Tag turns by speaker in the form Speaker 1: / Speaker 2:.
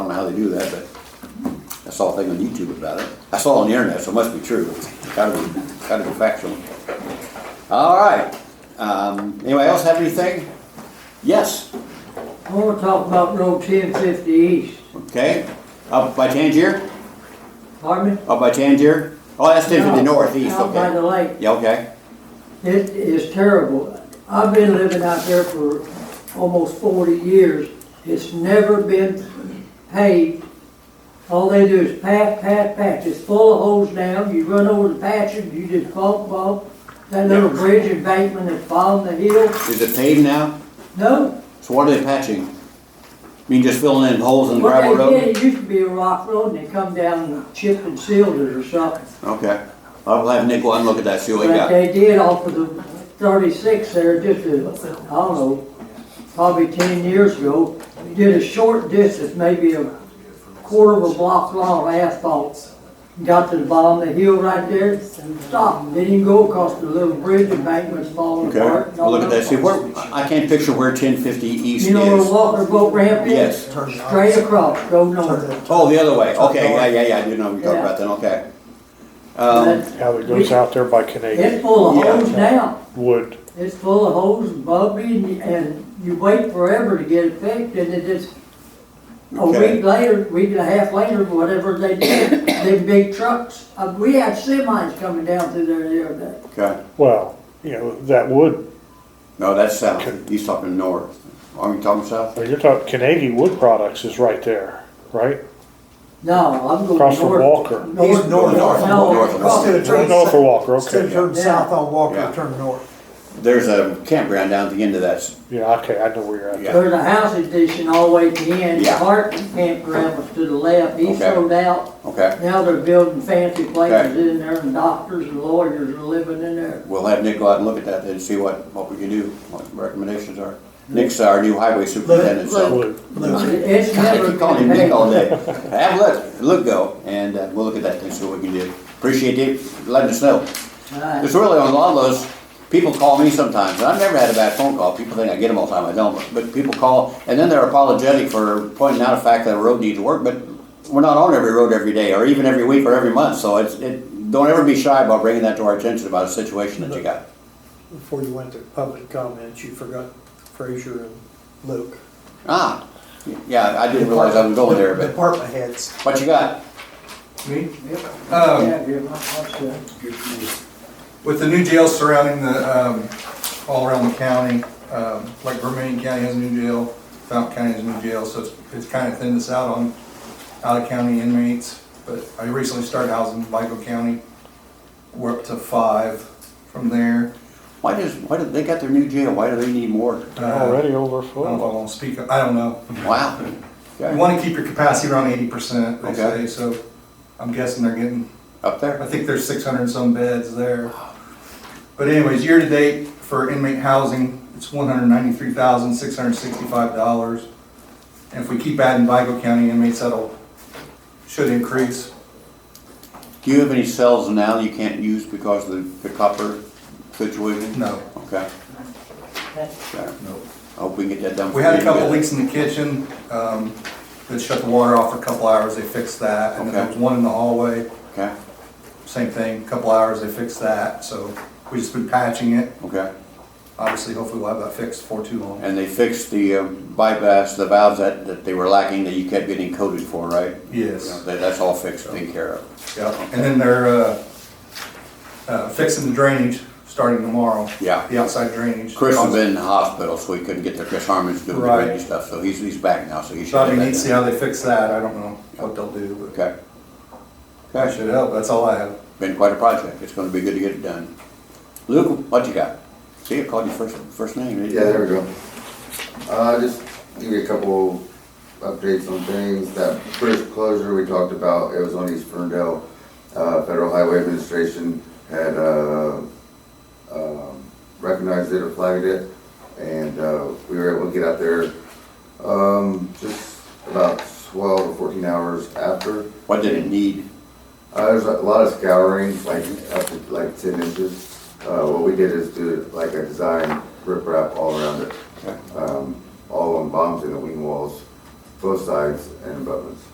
Speaker 1: they do that, but I saw a thing on YouTube about it. I saw it on the internet, so it must be true. Gotta be, gotta be factual. All right. Um, anybody else have anything? Yes,
Speaker 2: I wanna talk about Road ten fifty east.
Speaker 1: okay. Up by Tangier?
Speaker 2: Pardon me?
Speaker 1: Up by Tangier? Oh, that's ten fifty northeast,
Speaker 2: Out by the
Speaker 1: okay.
Speaker 2: lake.
Speaker 1: Yeah, okay.
Speaker 2: It is terrible. I've been living out there for almost forty years. It's never been paved. All they do is pat, pat, patch. It's full of holes down. You run over the patches, you just bump, bump. That little bridge embankment that's bottom of the hill.
Speaker 1: Is it paved now?
Speaker 2: No,
Speaker 1: So what are they patching? You mean just filling in holes in the
Speaker 2: what
Speaker 1: gravel
Speaker 2: they
Speaker 1: road?
Speaker 2: did, it used to be a rock road and they come down and chip and sealed it or something.
Speaker 1: Okay. I'll have Nick go out and look at that, see what he
Speaker 2: But
Speaker 1: got.
Speaker 2: they did off of the thirty-six there, just a, I don't know, probably ten years ago, did a short distance, maybe a quarter of a block long of asphalt. Got to the bottom of the hill right there, stopped, didn't even go across the little bridge embankment's falling
Speaker 1: Okay,
Speaker 2: apart. and all
Speaker 1: I'll look at that, see where, I I can't picture where ten fifty east
Speaker 2: You know where
Speaker 1: is.
Speaker 2: Walker Boat Ramp is?
Speaker 1: Yes.
Speaker 2: Straight across, go north.
Speaker 1: Oh, the other way, okay, yeah, yeah, yeah, I do know what you're talking about then, okay. Um,
Speaker 2: But
Speaker 3: How it goes out there by Canadian
Speaker 2: It's full of
Speaker 1: Yeah.
Speaker 2: holes now.
Speaker 3: Wood.
Speaker 2: It's full of holes and bumpy and, and you wait forever to get it fixed and it just, a
Speaker 1: Okay.
Speaker 2: week later, week and a half later, whatever they did, them big trucks, uh, we had semis coming down through there the other day.
Speaker 1: okay,
Speaker 3: Well, you know, that wood,
Speaker 1: no, that's south, he's talking north. Are you talking south?
Speaker 3: well, you're talking Canadian Wood Products is right there, right?
Speaker 2: No, I'm going north.
Speaker 3: Across from Walker.
Speaker 4: He's north.
Speaker 1: north,
Speaker 2: No,
Speaker 1: north,
Speaker 2: across-
Speaker 4: Instead of
Speaker 3: Turn
Speaker 4: turning
Speaker 3: north or
Speaker 4: south,
Speaker 3: Walker,
Speaker 4: instead of
Speaker 3: okay.
Speaker 4: turning south on
Speaker 1: Yeah.
Speaker 4: Walker, turn north.
Speaker 1: There's a campground down at the end of that, s-
Speaker 3: Yeah, okay, I know where you're at.
Speaker 1: Yeah.
Speaker 2: There's a house addition all the way to the end,
Speaker 1: Yeah.
Speaker 2: Hartman campground was to the left, he
Speaker 1: Okay.
Speaker 2: sold out.
Speaker 1: okay.
Speaker 2: Now they're building fancy places
Speaker 1: Okay.
Speaker 2: in there and doctors and lawyers are living in there.
Speaker 1: We'll have Nick go out and look at that and see what, what we can do, what recommendations are. Nick's our new highway superintendent, so.
Speaker 3: Wood.
Speaker 4: Look,
Speaker 2: It's
Speaker 1: I
Speaker 2: never
Speaker 1: keep calling him
Speaker 2: been
Speaker 1: Nick all
Speaker 2: paved.
Speaker 1: day. Have a look, look go, and uh, we'll look at that and see what we can do. Appreciate you letting us know.
Speaker 2: Right.
Speaker 1: It's really on a lot of those, people call me sometimes, and I've never had a bad phone call. People think I get them all the time, I don't, but- but people call, and then they're apologetic for pointing out a fact that a road needs work, but we're not on every road every day, or even every week, or every month, so it's, it, don't ever be shy about bringing that to our attention about a situation that you got.
Speaker 4: Before you went to public comments, you forgot Frazier and Luke.
Speaker 1: Ah, yeah, I didn't realize I was going there, but
Speaker 4: Department heads.
Speaker 1: what you got?
Speaker 5: Me? Um,
Speaker 2: Yeah, give my- what's that?
Speaker 5: With the new jails surrounding the, um, all around the county, um, like Vermillion County has a new jail, Fountain County has a new jail, so it's, it's kind of thinned us out on out-of-county inmates. But I recently started housing in Vigo County. We're up to five from there.
Speaker 1: Why does, why do, they got their new jail, why do they need more?
Speaker 5: Uh,
Speaker 3: Already over
Speaker 5: I
Speaker 1: Uh,
Speaker 5: don't know if I
Speaker 3: full.
Speaker 5: want to speak, I don't know.
Speaker 1: Wow.
Speaker 5: You
Speaker 1: Okay.
Speaker 5: want to keep your capacity around eighty percent, they
Speaker 1: Okay.
Speaker 5: say, so I'm guessing they're getting
Speaker 1: Up
Speaker 5: I
Speaker 1: there?
Speaker 5: think there's six hundred and some beds there. But anyways, year-to-date for inmate housing, it's one hundred ninety-three thousand, six hundred sixty-five dollars. And if we keep adding Vigo County inmates, that'll, should increase.
Speaker 1: Do you have any cells now you can't use because of the, the copper situation?
Speaker 5: No,
Speaker 1: Okay. Okay.
Speaker 5: no.
Speaker 1: I hope we can get that done.
Speaker 5: We had a
Speaker 1: for you.
Speaker 5: couple leaks in the kitchen, um, that shut the water off for a couple hours, they fixed that. And then there
Speaker 1: Okay.
Speaker 5: was one in the hallway,
Speaker 1: Okay,
Speaker 5: same thing, couple hours, they fixed that, so we just been patching it.
Speaker 1: okay.
Speaker 5: Obviously, hopefully we'll have that fixed before too long.
Speaker 1: And they fixed the um, bypass, the valves that, that they were lacking that you kept getting coded for, right?
Speaker 5: Yes.
Speaker 1: That, that's all fixed, taken care of.
Speaker 5: Yeah, and then they're uh, uh, fixing the drainage starting tomorrow.
Speaker 1: Yeah.
Speaker 5: The outside drainage.
Speaker 1: Chris has been in the hospital, so he couldn't get there. Chris Harmon's doing the
Speaker 5: Right.
Speaker 1: radio stuff, so he's, he's back now, so he should.
Speaker 5: So I
Speaker 1: have
Speaker 5: mean,
Speaker 1: that
Speaker 5: need to see
Speaker 1: done.
Speaker 5: how they fix that. I don't know what they'll do, but
Speaker 1: Okay.
Speaker 5: that
Speaker 1: Okay,
Speaker 5: should help. That's all I have.
Speaker 1: been quite a project. It's gonna be good to get it done. Luke, what you got? See, I called you first, first name. didn't you?
Speaker 6: Yeah, there we go. Uh, just give you a couple updates on things. That first closure we talked about, it was on East Ferndale. Uh, Federal Highway Administration had, uh, um, recognized it or flagged it. And, uh, we were able to get out there, um, just about twelve or fourteen hours after.
Speaker 1: What did it need?
Speaker 6: Uh, there's a lot of scouring, like up to like ten inches. Uh, what we did is do like a design rip wrap all around it.
Speaker 1: Okay.
Speaker 6: Um, all on bombs in the wing walls, both sides and abutments.